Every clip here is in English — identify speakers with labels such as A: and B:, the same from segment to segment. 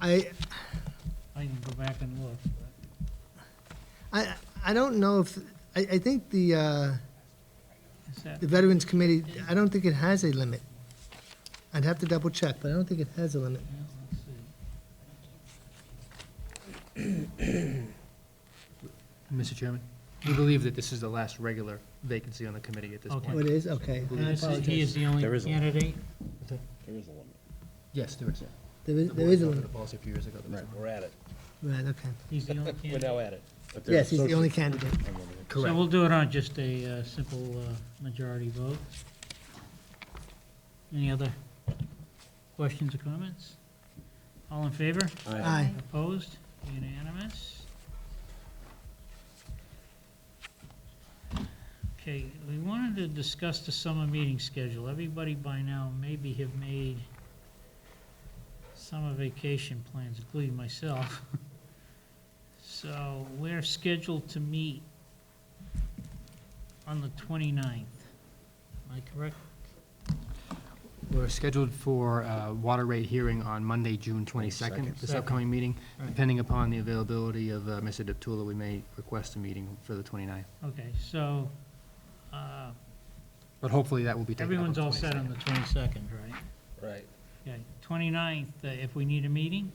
A: I,
B: I can go back and look.
A: I, I don't know if, I, I think the, uh,
B: but Is that,
A: the Veterans Committee, I don't think it has a limit. I'd have to double check, but I don't think it has a limit.
B: yeah, let's see.
C: Mr. Chairman, we believe that this is the last regular vacancy on the committee at this
B: Okay.
A: Oh,
C: point.
A: it is? Okay.
B: And
A: I
B: this is- He is
A: apologize.
B: the only
D: There is a-
B: candidate?
D: There is a limit.
C: Yes, there is.
A: There
C: The
A: is,
C: board
A: there is a
C: adopted
A: limit,
C: a Policy a few years ago. that was-
D: We're at it.
A: right, okay.
B: He's the only candidate?
D: at it.
A: Yes, he's the only candidate.
B: So we'll do it on just a uh, simple uh, majority vote. Any other questions or comments? All in favor?
A: Aye.
B: Opposed? Unanimous? Okay, we wanted to discuss the summer meeting schedule. Everybody by now maybe have made summer vacation plans, including myself. So we're scheduled to meet on the 29th. Am I correct?
C: We're scheduled for a water rate hearing on Monday, June 22nd, this
B: Second.
C: upcoming meeting.
B: Right.
C: Depending upon the availability of uh, Mr. Deptula, we may request a meeting for the 29th.
B: Okay, so uh,
C: But hopefully that will be taken up on
B: everyone's
C: the
B: all set on
C: 22nd.
B: the 22nd, right?
D: Right.
B: Okay, 29th, uh, if we need a meeting?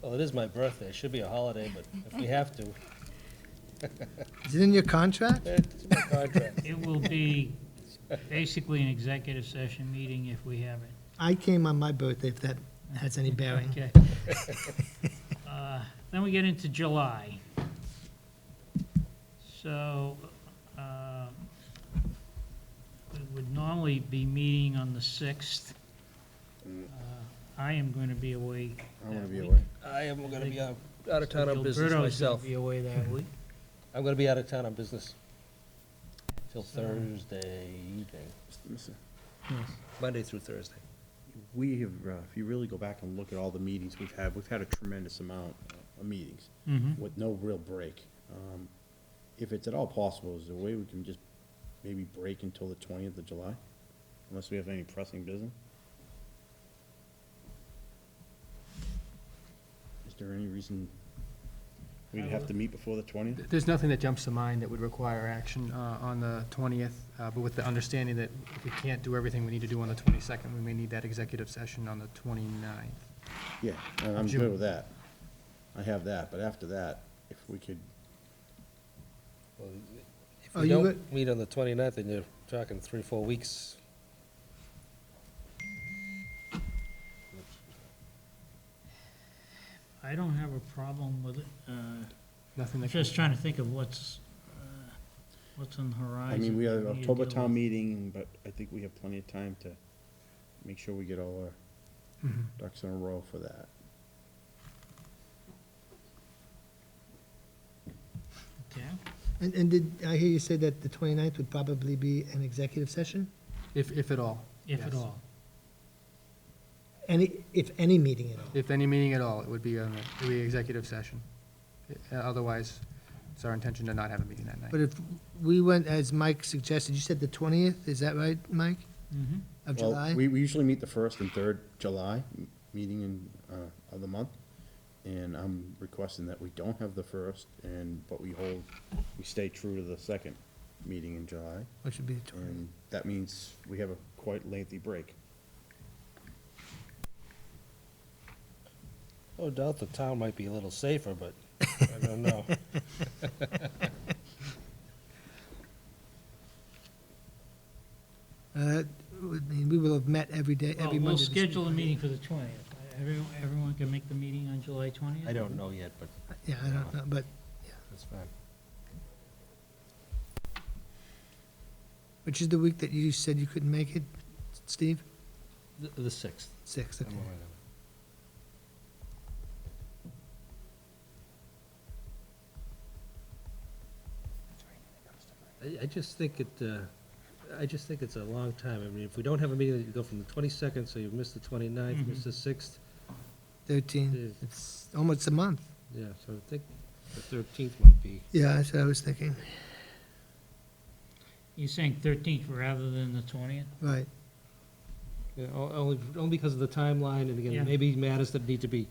D: Well, it is my birthday. It should be a holiday, but if we have to, eh,
A: Is it in your contract?
D: it's in my contract.
B: It will be basically an executive session meeting if we have it.
A: I came on my birthday, if that has any bearing.
B: Okay. Uh, Then we get into July. So um, we would normally be meeting on the 6th. Uh, I am going to be away.
D: I'm gonna
B: that
D: be
B: week.
D: away. I am gonna be out out of town on business
B: Gilberto's gonna
D: myself.
B: be away that week.
D: I'm gonna be out of town on business till
B: So-
D: Thursday evening,
E: Listen,
D: Monday through Thursday.
E: We have, uh, if you really go back and look at all the meetings we've had, we've had a tremendous amount of meetings
B: Mhm.
E: with no real break. Um, If it's at all possible, is there a way we can just maybe break until the twentieth of July? Unless we have any pressing business? Is there any reason we'd have to meet before the twentieth?
C: There's nothing that jumps to mind that would require action uh, on the 20th, uh, but with the understanding that if we can't do everything we need to do on the 22nd, we may need that executive session on the 29th.
E: Yeah, and I'm
C: June.
E: good with that. I have that, but after that, if we could,
D: Well, If
A: Are
D: we
A: Oh, you
D: don't meet on the 29th, then you're talking three, four weeks.
B: I don't have a problem with it. Uh,
C: Nothing
B: I'm
C: that.
B: Just trying to think of what's, uh, what's on the horizon.
E: I mean, we have
B: need to
E: October
B: deal
E: town
B: with.
E: meeting, but I think we have plenty of time to make sure we get all our
A: Mm-hmm.
C: Mhm.
E: ducks in a row for that.
B: Okay.
A: And, and did, I hear you say that the 29th would probably be an executive session?
C: If, if at all.
B: If at
C: Yes.
B: all.
A: Any, if any meeting at all?
C: If any meeting at all, it would be on, the- it would be executive session. Uh, Otherwise, it's our intention to not have a meeting that night.
A: But if we went, as Mike suggested, you said the 20th, is that right, Mike,
B: Mhm.
A: of
E: Well,
A: July?
E: We, we usually meet the first and third July, m- meeting in, uh, of the month. And I'm requesting that we don't have the first and, but we hold, we stay true to the second meeting in July.
A: Which would be the 20th.
E: And that means we have a quite lengthy break.
D: No doubt the town might be a little safer, but I don't know.
A: Uh, would mean we will have met every day,
B: Well,
A: every Monday.
B: we'll
A: this
B: schedule a
A: week.
B: meeting for the 20th. Everyone, everyone can make the meeting on July 20th?
D: I don't know yet, but
A: Yeah, I don't know, but,
D: that's fine.
A: which is the week that you said you couldn't make it, Steve?
D: The- The 6th.
A: Six, okay.
D: I'm away then. I, I just think it, uh, I just think it's a long time. I mean, if we don't have a meeting, you go from the twenty-second, so you miss the twenty-ninth, miss the sixth.
A: 13,
D: Yeah.
A: it's almost a month.
D: Yeah, so I think the thirteenth might be.
A: Yeah, that's what I was thinking,
B: You're saying 13th rather than the 20th?
A: right.
D: Yeah, o- only, only because of the timeline, and
B: Yeah.
D: again, maybe matters that need to be